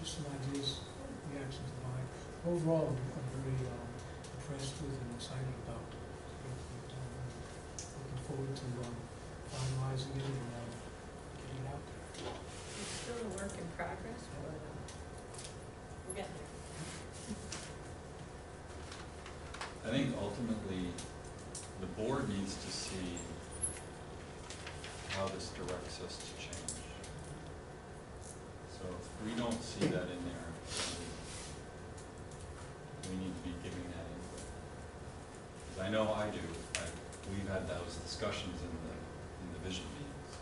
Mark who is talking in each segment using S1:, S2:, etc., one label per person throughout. S1: just some ideas, reactions of mine. Overall, I'm I'm very um, impressed with and excited about it. Um, Looking forward to um, finalizing it and um, getting it out there.
S2: It's still a work in progress, but uh, we're getting there.
S3: I think ultimately, the board needs to see how this directs us to change. So if we don't see that in there, then we need to be giving that input. Because I know I do, I, we've had those discussions in the, in the vision meetings.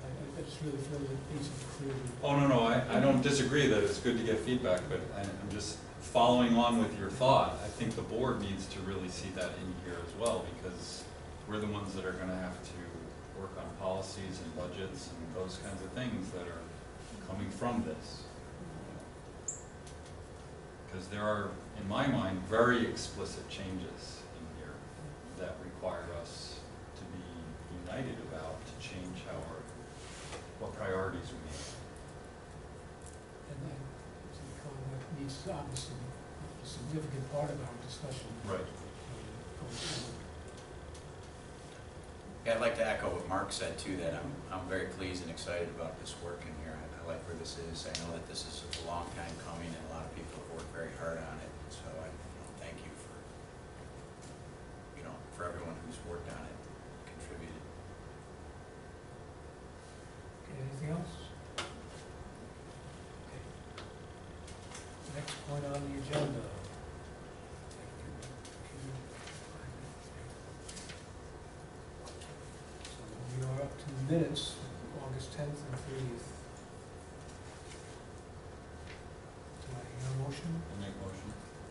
S1: I, I I just really feel that things are clearly.
S3: Oh, no, no, I, I don't disagree that it's good to get feedback, but I- I'm just following on with your thought. I think the board needs to really see that in here as well, because we're the ones that are gonna have to work on policies and budgets and those kinds of things that are coming from this. Because there are, in my mind, very explicit changes in here that require us to be united about, to change how our, what priorities we need.
S1: And I think um, that needs to obviously be a significant part of our discussion.
S3: Right.
S1: um, going forward.
S4: Yeah, I'd like to echo what Mark said too, that I'm, I'm very pleased and excited about this work in here. I- I like where this is. I know that this is a long time coming and a lot of people have worked very hard on it. So I, you know, thank you for, you know, for everyone who's worked on it, contributed.
S1: Okay, anything else? Okay. Next point on the agenda. So we are up to minutes, August tenth and thirtieth. Do I hear a motion?
S3: I'll make a motion.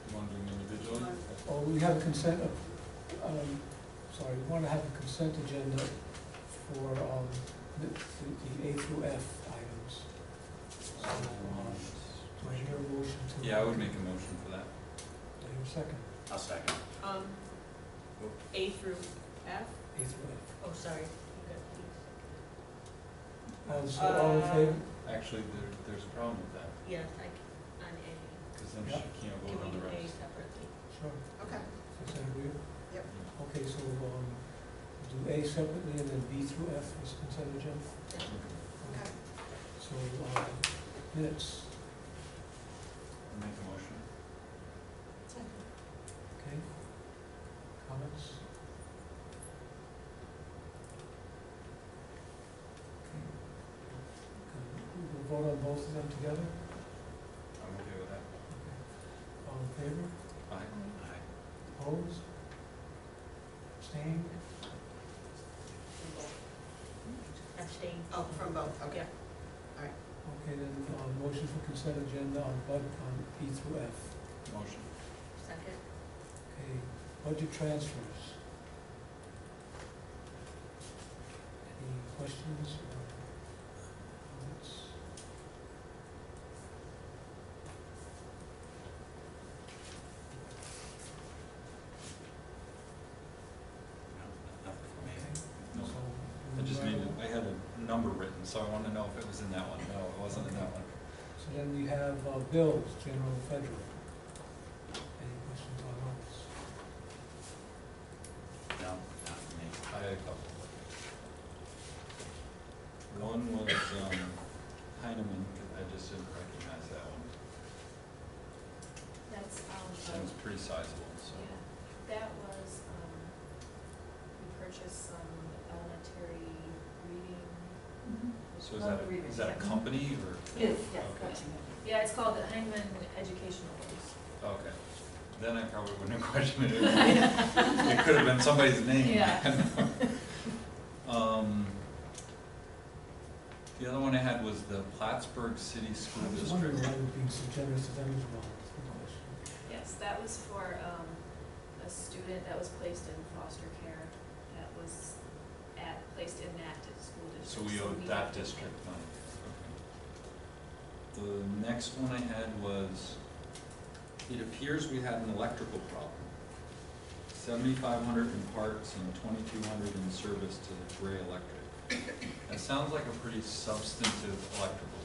S3: You want to do them individually?
S1: Oh, we have a consent, of- um, sorry, we want to have a consent agenda for, um, the, the the A through F items. So, um, do I hear a motion to?
S3: Yeah, I would make a motion for that.
S1: Do I hear a second?
S4: I'll second.
S2: Um, A through F,
S1: A through F.
S2: oh, sorry. You got these.
S1: All, so all in
S2: Uh,
S1: favor?
S3: Actually, there, there's a problem with that,
S2: Yes, I, c- on A,
S3: because then she can't
S2: can
S3: vote
S2: we
S3: on
S2: do
S3: the
S2: A
S3: rest.
S2: separately?
S1: Sure.
S2: Okay.
S1: Is that agreeable?
S2: Yep.
S1: Okay, so, um, do A separately and then B through F is consent agenda?
S2: Okay.
S1: So, uh, minutes,
S3: I'll Make a motion.
S1: okay? Comments? Okay, We'll vote on both of them together?
S3: I'm okay with that.
S1: All in favor?
S3: Aye.
S4: Aye.
S1: Opposed? Abstained?
S2: Abstain.
S5: Oh, from both, okay.
S2: Yeah.
S1: Okay, then, uh, motion for consent agenda on bud, on P through F.
S3: Motion.
S2: Second,
S1: Okay, budget transfers. Any questions or comments?
S4: No, Nothing for me.
S1: Okay,
S3: No,
S1: so.
S3: I just
S1: we
S3: needed,
S1: will-
S3: I had a number written, so I wanted to know if it was in that one. No, it wasn't in that one.
S1: So then we have uh, bills, general and federal. Any questions on those?
S4: No, not for me.
S3: I had a couple. One was, um, Heineman, I just didn't recognize that one.
S6: That's,
S3: That
S6: um,
S3: was pretty sizable, so.
S6: yeah, that was, um, we purchased some elementary reading.
S3: So is that,
S6: reading,
S3: is that a
S6: yeah.
S3: company or?
S6: Yes, yes,
S3: Okay.
S6: correct. Yeah, it's called the Heinemann Educational Books.
S3: Okay, then I probably wouldn't have questioned it. It could have been somebody's name.
S6: Yeah.
S3: Um, the other one I had was the Plattsburgh City School
S1: I was wondering
S3: District.
S1: why we're being so generous to them as well. That's the question.
S6: Yes, that was for, um, a student that was placed in foster care, that was at, placed in that di- school
S3: So we
S6: district.
S3: owed that
S6: have to
S3: district
S6: pay.
S3: money. Okay. The next one I had was, it appears we had an electrical problem. Seventy-five hundred in parts and twenty-two hundred in service to the Gray Electric. That sounds like a pretty substantive electrical